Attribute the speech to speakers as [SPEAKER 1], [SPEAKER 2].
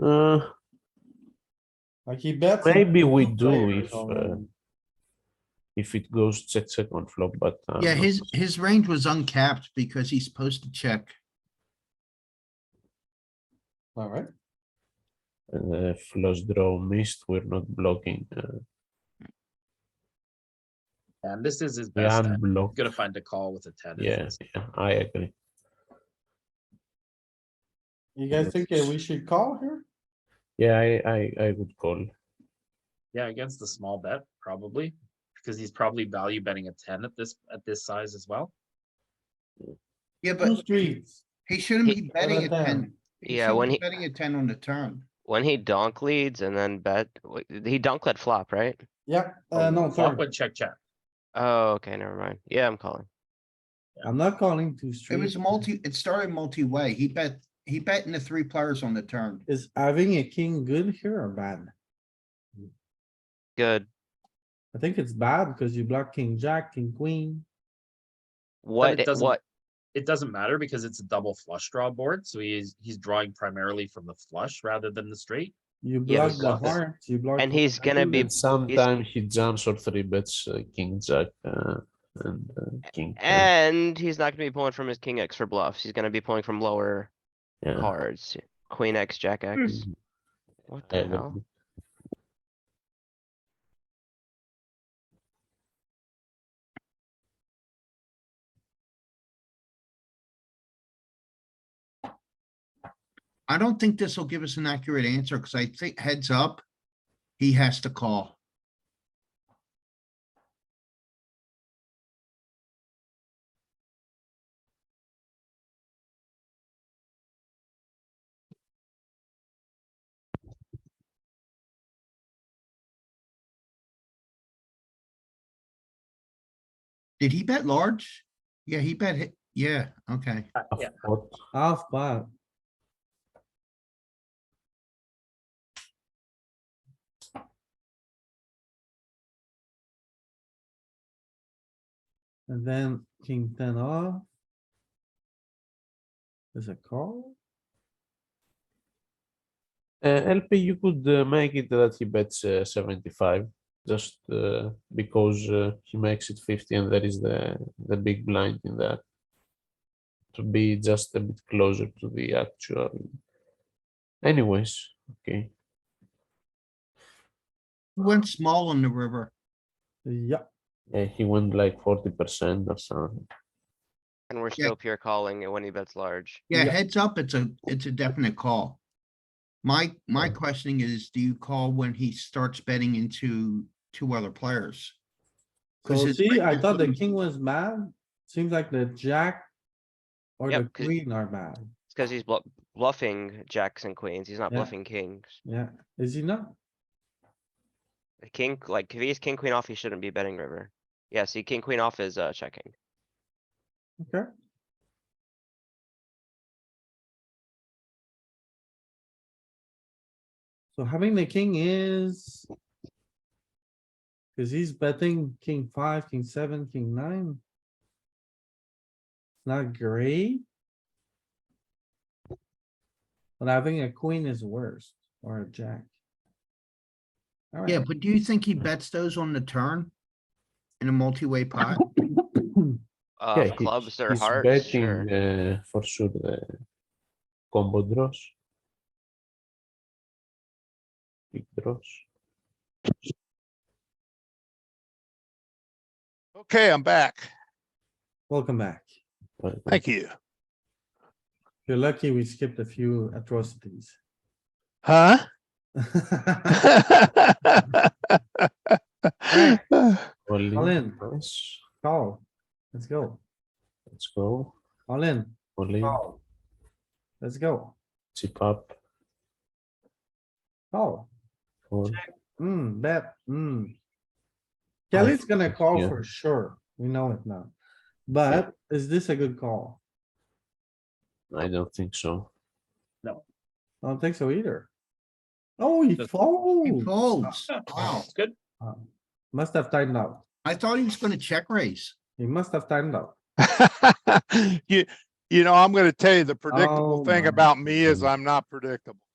[SPEAKER 1] Uh,
[SPEAKER 2] Like he bets. and
[SPEAKER 1] maybe we
[SPEAKER 2] two
[SPEAKER 1] do
[SPEAKER 2] players
[SPEAKER 1] if, uh,
[SPEAKER 2] on-
[SPEAKER 1] if it goes check, check on flop, but. uh,
[SPEAKER 3] Yeah,
[SPEAKER 1] not
[SPEAKER 3] his,
[SPEAKER 1] possible.
[SPEAKER 3] his range was uncapped because he's supposed to check.
[SPEAKER 2] Alright,
[SPEAKER 1] Uh, flush draw missed, we're not blocking, uh,
[SPEAKER 4] And this is his
[SPEAKER 1] we
[SPEAKER 4] best. bet. He's
[SPEAKER 1] unblock.
[SPEAKER 4] gonna find a call with a ten. isn't
[SPEAKER 1] Yeah,
[SPEAKER 4] this-
[SPEAKER 1] yeah, I agree.
[SPEAKER 2] you guys think that we should call here?
[SPEAKER 1] Yeah, I, I, I would call.
[SPEAKER 4] Yeah, against the small bet, probably, because he's probably value betting a ten at this, at this size as well.
[SPEAKER 3] Yeah,
[SPEAKER 2] Two
[SPEAKER 3] but
[SPEAKER 2] streets.
[SPEAKER 3] he shouldn't
[SPEAKER 5] He-
[SPEAKER 3] be betting a
[SPEAKER 2] Another
[SPEAKER 3] ten.
[SPEAKER 5] Yeah, when
[SPEAKER 3] shouldn't be
[SPEAKER 5] he-
[SPEAKER 3] Betting a ten on the turn.
[SPEAKER 5] When he donk leads and then bet, wait, he donk led flop, right?
[SPEAKER 2] Yeah,
[SPEAKER 1] Oh,
[SPEAKER 2] uh, no,
[SPEAKER 4] Flop
[SPEAKER 2] third.
[SPEAKER 4] went check, check.
[SPEAKER 5] Oh, okay, never mind. Yeah, I'm calling.
[SPEAKER 2] I'm not calling two
[SPEAKER 3] It
[SPEAKER 2] streets.
[SPEAKER 3] was multi, it started multi-way. He bet, he bet in the three players on the turn.
[SPEAKER 2] Is having a king good here or bad?
[SPEAKER 5] Good.
[SPEAKER 2] I think it's bad because you block king, jack, king, queen.
[SPEAKER 5] What,
[SPEAKER 4] it
[SPEAKER 5] i-
[SPEAKER 4] doesn't-
[SPEAKER 5] what,
[SPEAKER 4] It doesn't matter because it's a double flush draw board, so he's, he's drawing primarily from the flush rather than the straight.
[SPEAKER 2] You
[SPEAKER 5] Yeah,
[SPEAKER 2] block
[SPEAKER 5] but
[SPEAKER 2] the
[SPEAKER 5] what-
[SPEAKER 2] hearts, you block.
[SPEAKER 5] and
[SPEAKER 2] the
[SPEAKER 5] he's gonna be,
[SPEAKER 1] And sometimes he jumps or three bets, uh, king, jack, uh, and uh, king. ten.
[SPEAKER 5] and he's not gonna be pulling from his king X for bluffs. He's gonna be pulling from lower
[SPEAKER 1] Yeah.
[SPEAKER 5] cards. Queen X, jack X.
[SPEAKER 1] Mhm. I
[SPEAKER 5] What the
[SPEAKER 1] agree.
[SPEAKER 5] hell?
[SPEAKER 3] I don't think this will give us an accurate answer because I think heads up, he has to call. Did he bet large? Yeah, he bet, hi- yeah, okay.
[SPEAKER 4] Uh,
[SPEAKER 1] A
[SPEAKER 4] Yeah,
[SPEAKER 1] fold.
[SPEAKER 2] Half pot. And then king ten off. Is a call?
[SPEAKER 1] Uh, LP, you could uh, make it that he bets uh, 75 just uh, because uh, he makes it 50 and there is the, the big blind in there to be just a bit closer to the actual. Anyways, okay.
[SPEAKER 3] He Went small on the river.
[SPEAKER 2] Yeah,
[SPEAKER 1] Yeah, he went like 40% or something.
[SPEAKER 5] And we're still pure calling it when he bets large.
[SPEAKER 3] Yeah,
[SPEAKER 2] Yeah.
[SPEAKER 3] heads up, it's a, it's a definite call. My, my questioning is, do you call when he starts betting into two other players?
[SPEAKER 2] so
[SPEAKER 3] 'Cause his
[SPEAKER 2] see, I
[SPEAKER 3] range
[SPEAKER 2] thought the
[SPEAKER 3] wouldn't-
[SPEAKER 2] king was bad, seems like the jack. Or
[SPEAKER 5] Yep,
[SPEAKER 2] the
[SPEAKER 5] 'cause-
[SPEAKER 2] queen are bad,
[SPEAKER 5] It's cuz he's bluff- bluffing jacks and queens. He's not
[SPEAKER 2] Yeah.
[SPEAKER 5] bluffing kings.
[SPEAKER 2] yeah, is he not?
[SPEAKER 5] A King, like, if he's king, queen off, he shouldn't be betting river. Yeah, see, king, queen off is, uh, checking.
[SPEAKER 2] Okay, so having the king is. Cause he's betting king five, king seven, king nine. It's Not great. But having a queen is worse, or a jack.
[SPEAKER 3] Yeah,
[SPEAKER 2] Alright,
[SPEAKER 3] but do you think he bets those on the turn? In a multi-way pot?
[SPEAKER 5] Uh,
[SPEAKER 1] he-
[SPEAKER 5] clubs or
[SPEAKER 1] he's
[SPEAKER 5] hearts,
[SPEAKER 1] betting
[SPEAKER 5] sure.
[SPEAKER 1] uh, for sure the combo draws. Big draws.
[SPEAKER 6] Okay, I'm back.
[SPEAKER 2] welcome back.
[SPEAKER 1] but-
[SPEAKER 6] Thank you.
[SPEAKER 2] You're lucky we skipped a few atrocities.
[SPEAKER 6] Huh?
[SPEAKER 1] All
[SPEAKER 2] All
[SPEAKER 1] in.
[SPEAKER 2] in,
[SPEAKER 1] Nice.
[SPEAKER 2] call. Let's go.
[SPEAKER 1] Let's go.
[SPEAKER 2] All in,
[SPEAKER 1] All in.
[SPEAKER 2] call. Let's go.
[SPEAKER 1] Chip up.
[SPEAKER 2] Call.
[SPEAKER 1] Call.
[SPEAKER 2] Hmm, bet, hmm.
[SPEAKER 1] I
[SPEAKER 2] Kelly's gonna call
[SPEAKER 1] yeah.
[SPEAKER 2] for sure. We know it now. But is this a good call?
[SPEAKER 1] I don't think so.
[SPEAKER 2] I don't think so either. Oh, he
[SPEAKER 4] Just-
[SPEAKER 3] He
[SPEAKER 2] folds.
[SPEAKER 3] folds. Wow,
[SPEAKER 4] it's good.
[SPEAKER 2] Um, Must have timed out.
[SPEAKER 3] I thought he was gonna check raise.
[SPEAKER 2] He must have timed out.
[SPEAKER 6] You, you know, I'm gonna tell you, the
[SPEAKER 2] Oh
[SPEAKER 6] predictable thing
[SPEAKER 2] my
[SPEAKER 6] about me is
[SPEAKER 1] goodness.
[SPEAKER 6] I'm not predictable.